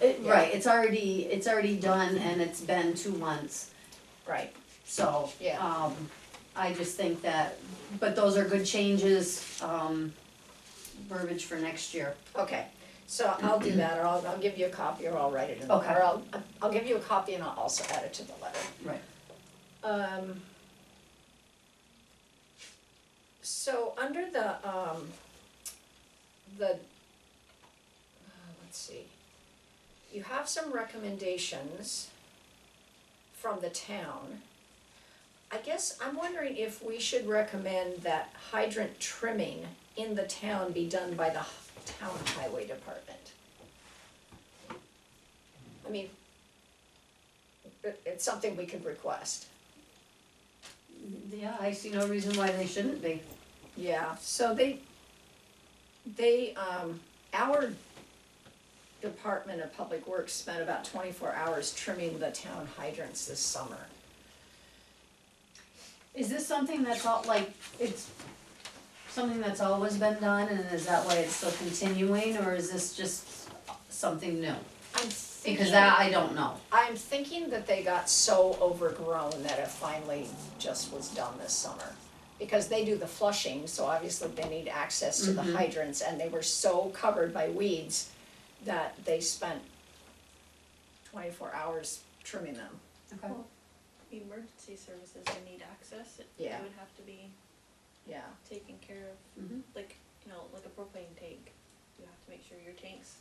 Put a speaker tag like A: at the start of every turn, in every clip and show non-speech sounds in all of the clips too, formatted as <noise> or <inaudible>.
A: It,
B: Yeah.
A: right, it's already, it's already done and it's been two months,
B: Right,
A: so,
B: Yeah.
A: um, I just think that, but those are good changes, um, verbiage for next year.
B: okay, so I'll do that, or I'll, I'll give you a copy, or I'll write it in, the- or
A: Okay.
B: I'll, I'll give you a copy and I'll also add it to the letter.
A: Right.
B: Um. So under the um, the, uh, let's see, you have some recommendations from the town. I guess I'm wondering if we should recommend that hydrant trimming in the town be done by the h- town highway department. I mean, it, it's something we could request.
A: Yeah, I see no reason why they shouldn't be.
B: Yeah, so they, they, um, our Department of Public Works spent about twenty-four hours trimming the town hydrants this summer.
A: Is this something that's all, like, it's something that's always been done and is that why it's still continuing, or is this just something new?
B: I'm thinking.
A: Because that, I don't know.
B: I'm thinking that they got so overgrown that it finally just was done this summer. Because they do the flushing, so obviously they need access to the
A: Mhm.
B: hydrants, and they were so covered by weeds that they spent twenty-four hours trimming them.
A: Okay.
C: the emergency services that need access, it it
B: Yeah.
C: would have to be
B: Yeah,
C: taken care of,
A: Mhm.
C: like, you know, like a propane tank. You have to make sure your tank's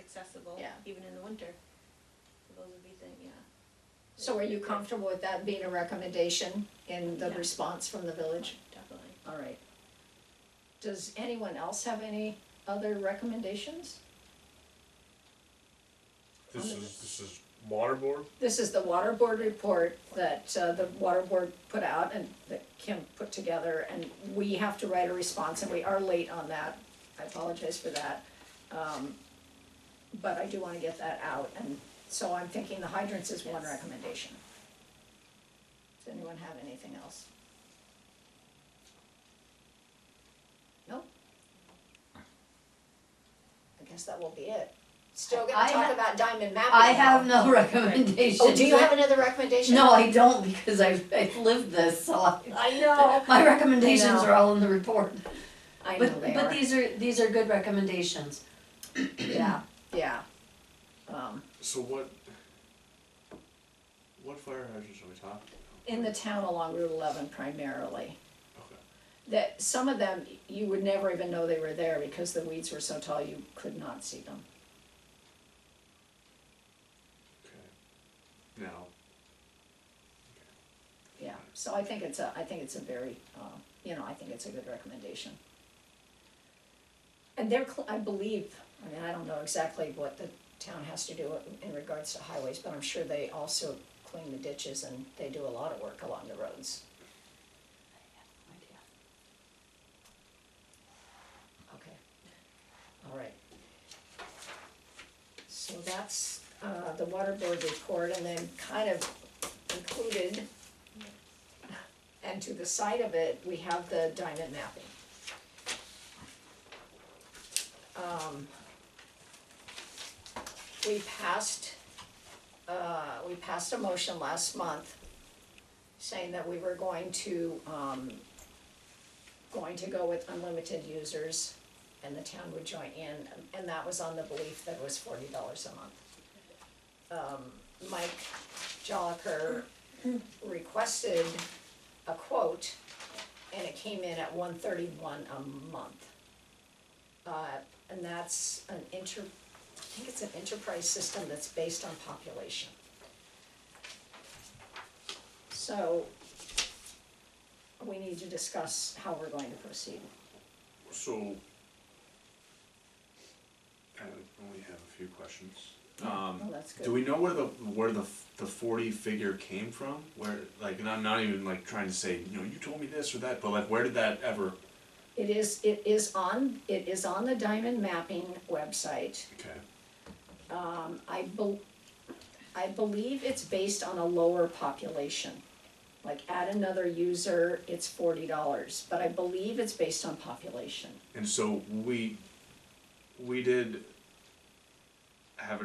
C: accessible,
B: Yeah.
C: even in the winter. So Those would be things, yeah.
B: So are you comfortable with that being a recommendation in the
C: Yeah.
B: response from the village?
C: Definitely.
B: All right. Does anyone else have any other recommendations?
D: This is, this is water board?
B: This is the water board report that uh, the water board put out and that Kim put together, and we have to write a response, and we are late on that. I apologize for that. Um, But I do wanna get that out, and so I'm thinking the hydrants is one
C: Yes.
B: recommendation. Does anyone have anything else? Nope. I guess that will be it. Still
A: I
B: gonna talk
A: ha-
B: about diamond mapping
A: I have
B: though.
A: no <laughs> recommendations.
B: Oh, do you have another recommendation?
A: No, I don't, because I've, I've lived this, so I,
B: <laughs> I know.
A: my recommendations
B: I know.
A: are all in the report.
B: I know
A: But,
B: they
A: but
B: are.
A: these are, these are good recommendations.
B: Yeah, yeah. Um,
D: So what, what fire hydrants are we talking about?
B: in the town along Route eleven primarily.
D: Okay.
B: That, some of them, you would never even know they were there because the weeds were so tall you could not see them.
D: Okay. Now,
B: Yeah, so I think it's a, I think it's a very, uh, you know, I think it's a good recommendation. And they're, cl- I believe, I mean, I don't know exactly what the town has to do in regards to highways, but I'm sure they also clean the ditches and they do a lot of work along the roads. Okay, all right. So that's, uh, the water board report and then kind of included and to the side of it, we have the diamond mapping. Um, we passed, uh, we passed a motion last month saying that we were going to, um, going to go with unlimited users and the town would join in, and that was on the belief that it was forty dollars a month. Um, Mike Joliker requested a quote, and it came in at one thirty-one a month. Uh, and that's an inter, I think it's an enterprise system that's based on population. So, we need to discuss how we're going to proceed.
D: so, I only have a few questions. Um,
B: Well, Oh, that's good.
D: do we know where the, where the, the forty figure came from? Where, like, and I'm not even like trying to say, you know, you told me this or that, but like, where did that ever,
B: It is, it is on, it is on the diamond mapping website.
D: okay,
B: Um, I bel- I believe it's based on a lower population. Like add another user, it's forty dollars, but I believe it's based on population.
D: and so we, we did